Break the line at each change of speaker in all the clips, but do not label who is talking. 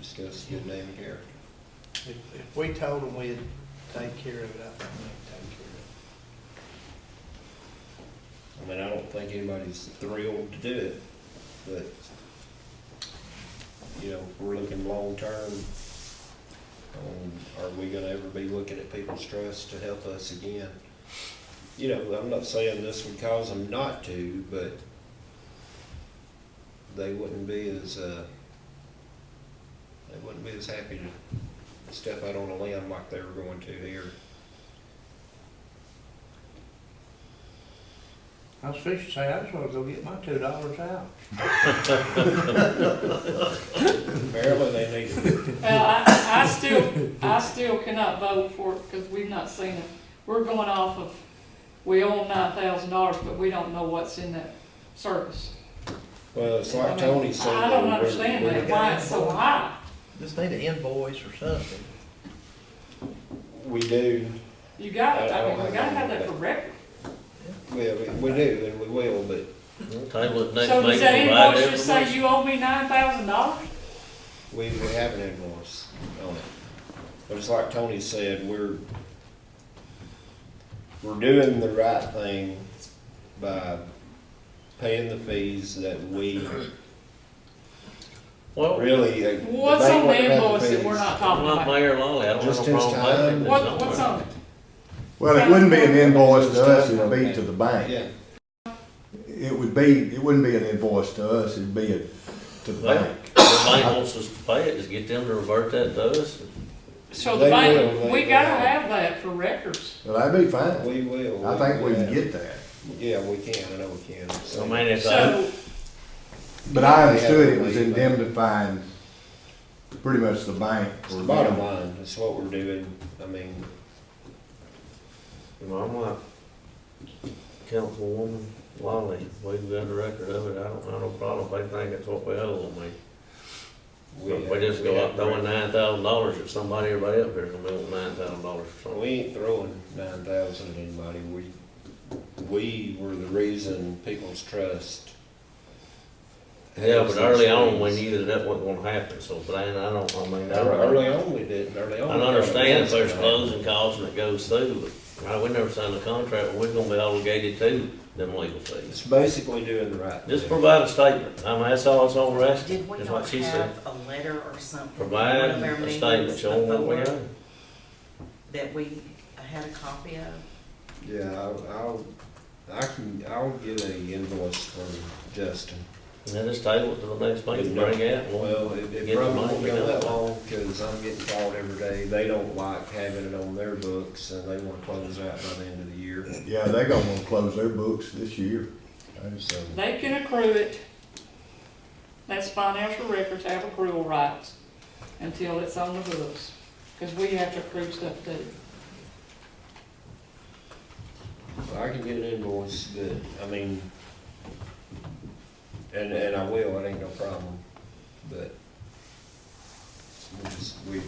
discuss the name here.
If, if we told them we'd take care of it, I think they'd take
I
care of it.
mean, I don't think anybody's thrilled to do it, but, you know, we're looking long-term. Um, Are we gonna ever be looking at people's trust to help us again? You know, I'm not saying this would cause them not to, but they wouldn't be as, uh, they wouldn't be as happy to step out on a limb like they were going to here.
I was fishing, say, I just wanna go get my two dollars out.
Apparently, they need to
Well, I, I still, I still cannot vote for it because we've not seen it. We're going off of, we own nine thousand dollars, but we don't know what's in that service.
Well, it's
I
like
mean,
Tony said.
I don't
we're-
understand
we're-
that, why it's so high.
Just need an invoice or something.
We do,
You got it,
I- I
I
don't
mean, we
have
gotta have
any of that.
that for record.
yeah, we- we do, and we will, but
Table it next
So does that
meeting, provide
invoice just say
everyone.
you owe me nine thousand dollars?
we, we have an invoice on it. But it's like Tony said, we're, we're doing the right thing by paying the fees that we
Well,
really. uh, the
What's
bank
on
wouldn't
the
have
invoice that we're
fees.
not
I'm
talking
not
about?
Mayor Lawley, I don't
Just
have a
his
problem paying
time.
it
What, what's
somewhere.
on it?
Well, it wouldn't be an invoice to us, it'd be to the bank.
Yeah,
It would be, it wouldn't be an invoice to us, it'd be a- to the
Well,
bank.
The bank wants us to pay it, just get them to revert that to us.
So the
They
bank,
will,
we
they
gotta
will.
have that for records.
Well, that'd be fine.
we will.
I think we can
have-
get that.
Yeah, we can, I know we can.
I mean, if I,
So,
But I understood it was indemnifying pretty much the bank.
It's
for
the Bottom line, that's what we're doing, I mean,
you know, I'm like Councilwoman Lawley, we've got a record of it, I don't have no problem, if they think it's what we owe them, we.
we.
If we just go up throwing nine thousand dollars at somebody, everybody up there's gonna be wanting nine thousand dollars for
We
something.
ain't throwing nine thousand at anybody, we, we were the reason people's trust.
Yeah,
has these
but early on, we
things.
knew that that wasn't gonna happen, so, but I, I don't, I mean, I
Ear-
don't.
Early on, we didn't, early on.
I
we got
understand if there's
against it.
closing costs and it goes through, but uh, we never signed a contract, we're gonna be obligated to them legal fees.
It's basically doing the right
Just
thing.
provide a statement, I mean, that's all it's all we're asking,
Did we
is
not
what she said.
have a letter or something? from one
Provide
of our
a statement
meetings
showing what we
before
owe.
That we had a copy of?
Yeah, I'll, I'll, I can, I'll get a invoice from Justin.
And then just table it to the next meeting, bring it out. and we'll-
Well, it
get
it
the
probably
money
won't go
done.
that long, cause I'm getting called every day, they don't like having it on their books, and they wanna close out by the end of the year,
Yeah, they gonna wanna close their books this year.
so.
They can accrue it. That's financial records have accrual rights until it's on the books, because we have to accrue stuff too.
I can get an invoice, but, I mean, and, and I will, it ain't no problem, but we just, we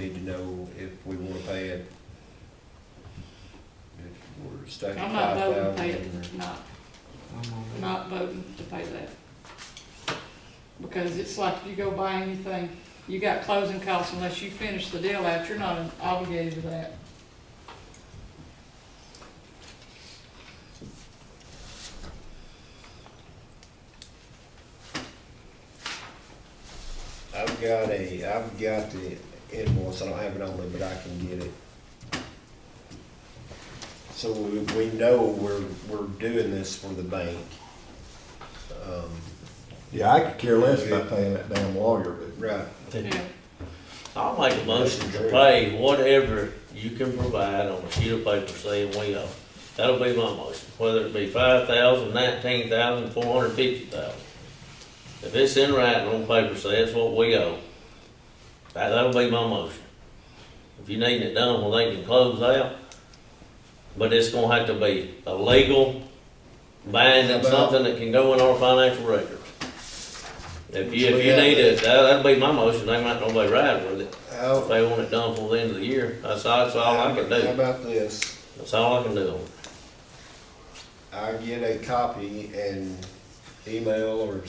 need to know if we wanna pay it. If we're stuck at
I'm not
five
voting to pay it,
thousand.
not, not voting to pay that. Because it's like you go buy anything, you got closing costs unless you finish the deal out, you're not obligated to that.
I've got a, I've got the invoice, I don't have it on me, but I can get it. So we, we know we're, we're doing this for the bank. Um,
Yeah, I could care less about paying that damn lawyer, but
right,
Yeah.
I'll make a motion to pay whatever you can provide on a sheet of paper saying we owe. That'll be my motion, whether it be five thousand, nineteen thousand, four hundred fifty thousand. If it's in writing on paper, say it's what we owe, that, that'll be my motion. If you need it done, well, they can close out, but it's gonna have to be a legal binding, something that can go in our financial records. If you, if you need it, that, that'll be my motion, they might not be right with it.
I'll-
If they want it done before the end of the year, that's all, that's all I can
How
do.
about this?
That's all I can do.
I get a copy and email or